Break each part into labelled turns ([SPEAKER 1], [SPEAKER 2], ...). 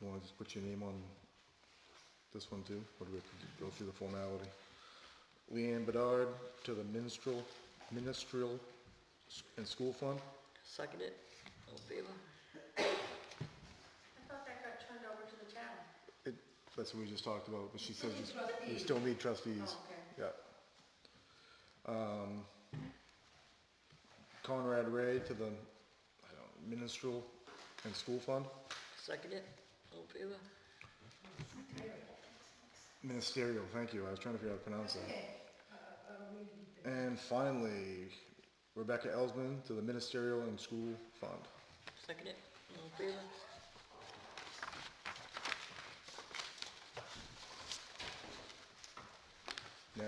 [SPEAKER 1] You wanna just put your name on this one too, or do we have to do- go through the formality? Leanne Bedard to the minstrel, ministerial s- and school fund?
[SPEAKER 2] Second it, all in favor?
[SPEAKER 3] I thought that got turned over to the town.
[SPEAKER 1] It, that's what we just talked about, but she says you s- you
[SPEAKER 3] Trustees.
[SPEAKER 1] still need trustees.
[SPEAKER 3] Oh, okay.
[SPEAKER 1] Yeah. Um, Conrad Ray to the, I don't, minstrel and school fund,
[SPEAKER 2] Second it, all in favor?
[SPEAKER 1] ministerial, thank you, I was trying to figure out how to pronounce that.
[SPEAKER 3] Okay. Uh, uh, we need to-
[SPEAKER 1] And finally, Rebecca Elsman to the ministerial and school fund.
[SPEAKER 2] Second it, all in favor?
[SPEAKER 1] Now.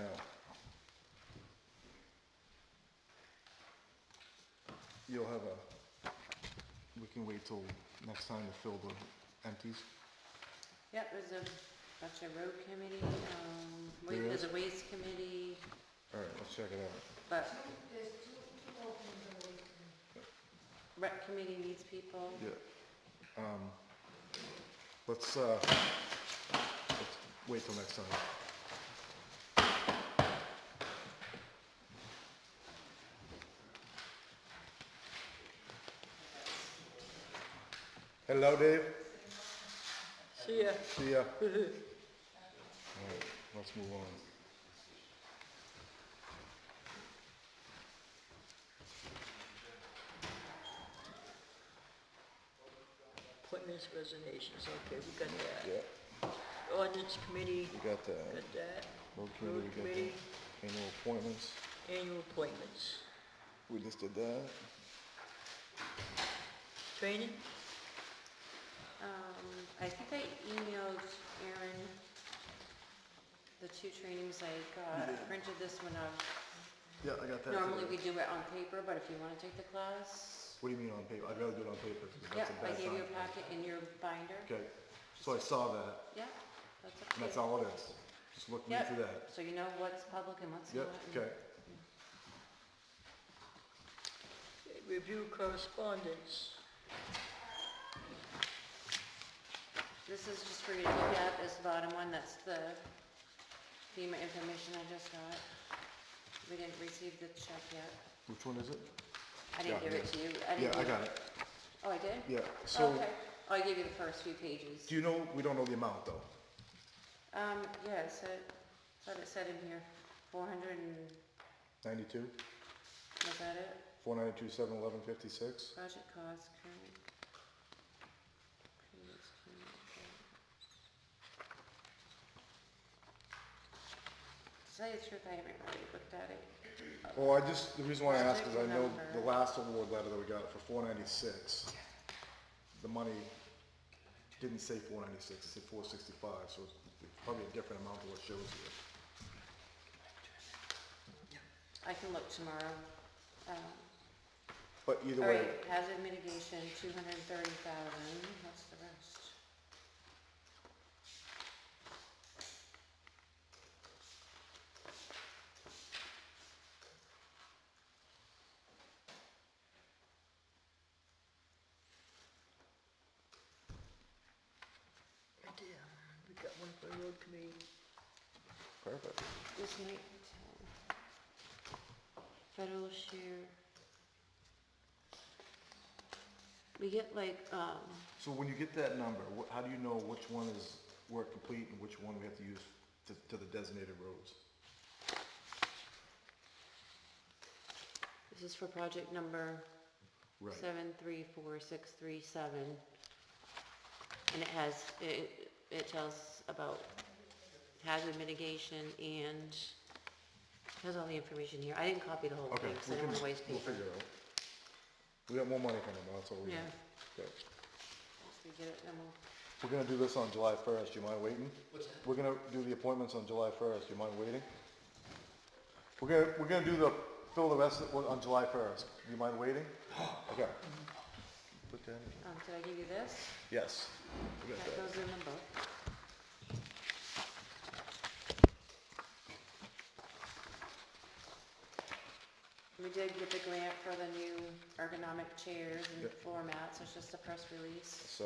[SPEAKER 1] You'll have a, we can wait till next time to fill the empties.
[SPEAKER 4] Yep, there's a, that's a road committee, um, wa-
[SPEAKER 1] There
[SPEAKER 4] there's
[SPEAKER 1] is?
[SPEAKER 4] a waste committee,
[SPEAKER 1] All right, let's check it out.
[SPEAKER 4] but
[SPEAKER 3] There's two, two openings in the week.
[SPEAKER 4] rec committee needs people.
[SPEAKER 1] Yeah. Um, let's, uh, let's wait till next time. Hello, Dave.
[SPEAKER 2] See ya.
[SPEAKER 1] See ya. All right, let's move on.
[SPEAKER 2] Appointments, resignations, okay, we got that.
[SPEAKER 1] Yeah,
[SPEAKER 2] Ordinance committee,
[SPEAKER 1] we got the
[SPEAKER 2] got that.
[SPEAKER 1] road
[SPEAKER 2] Road
[SPEAKER 1] committee, we got the
[SPEAKER 2] committee,
[SPEAKER 1] annual appointments.
[SPEAKER 2] annual appointments.
[SPEAKER 1] We just did that.
[SPEAKER 2] Training,
[SPEAKER 4] Um, I think I emailed Aaron the two trainings I got, I printed this one up.
[SPEAKER 1] Yeah, I got that.
[SPEAKER 4] Normally
[SPEAKER 1] today.
[SPEAKER 4] we do it on paper, but if you wanna take the class,
[SPEAKER 1] What do you mean on paper? I'd rather do it on paper because
[SPEAKER 4] yep,
[SPEAKER 1] that's a
[SPEAKER 4] I
[SPEAKER 1] bad
[SPEAKER 4] gave you a
[SPEAKER 1] sign.
[SPEAKER 4] packet in your binder,
[SPEAKER 1] Okay, so I saw that,
[SPEAKER 4] yep, that's okay.
[SPEAKER 1] and that's all it is. Just look me
[SPEAKER 4] Yep,
[SPEAKER 1] through that.
[SPEAKER 4] So you know what's public and what's not.
[SPEAKER 1] Yep,
[SPEAKER 4] and-
[SPEAKER 1] okay.
[SPEAKER 2] review correspondence.
[SPEAKER 4] This is just for you to look at, this bottom one, that's the FEMA information I just got. We didn't receive the check yet.
[SPEAKER 1] Which one is it?
[SPEAKER 4] I didn't
[SPEAKER 1] Yeah,
[SPEAKER 4] give it
[SPEAKER 1] yeah.
[SPEAKER 4] to you. I
[SPEAKER 1] Yeah,
[SPEAKER 4] didn't
[SPEAKER 1] I
[SPEAKER 4] give-
[SPEAKER 1] got it.
[SPEAKER 4] Oh, I did?
[SPEAKER 1] Yeah, so,
[SPEAKER 4] Okay. Oh, I gave you the first few pages.
[SPEAKER 1] do you know, we don't know the amount though.
[SPEAKER 4] Um, yeah, it said, thought it said in here, four hundred and,
[SPEAKER 1] Ninety-two,
[SPEAKER 4] was that it?
[SPEAKER 1] four ninety-two, seven eleven fifty-six.
[SPEAKER 4] Budget cost, current. Previous current, okay. To tell you the truth, I haven't really looked at it.
[SPEAKER 1] Well, I just, the reason why I ask is I
[SPEAKER 4] Project
[SPEAKER 1] know the
[SPEAKER 4] number.
[SPEAKER 1] last award letter that we got for four ninety-six, the money didn't say four ninety-six, it said four sixty-five, so it's probably a different amount than what shows here.
[SPEAKER 4] I can look tomorrow. Um,
[SPEAKER 1] But either
[SPEAKER 4] All
[SPEAKER 1] way,
[SPEAKER 4] right, hazard mitigation, two hundred and thirty thousand, what's the rest?
[SPEAKER 2] Right there, we got one for the road committee.
[SPEAKER 1] perfect.
[SPEAKER 4] This might, um, federal share. We get like, um,
[SPEAKER 1] So when you get that number, wh- how do you know which one is work complete and which one we have to use to, to the designated roads?
[SPEAKER 4] this is for project number
[SPEAKER 1] Right,
[SPEAKER 4] seven three four six three seven. And it has, it, it tells about hazard mitigation and it has all the information here. I didn't copy the whole
[SPEAKER 1] okay,
[SPEAKER 4] thing, so
[SPEAKER 1] we can,
[SPEAKER 4] I don't want
[SPEAKER 1] we'll
[SPEAKER 4] to waste paper.
[SPEAKER 1] figure it out. We got more money coming, that's all we
[SPEAKER 4] Yeah.
[SPEAKER 1] have. Okay.
[SPEAKER 4] Once we get it, then we'll,
[SPEAKER 1] We're gonna do this on July first, do you mind waiting? We're gonna do the appointments on July first, do you mind waiting? We're gonna, we're gonna do the, fill the rest of, well, on July first, do you mind waiting? Okay. Put that in.
[SPEAKER 4] um, did I give you this?
[SPEAKER 1] Yes. We got
[SPEAKER 4] That
[SPEAKER 1] that.
[SPEAKER 4] goes in the book. We did get the grant for the new ergonomic chairs and
[SPEAKER 1] Yep.
[SPEAKER 4] floor mats, it's just a press release.
[SPEAKER 1] So,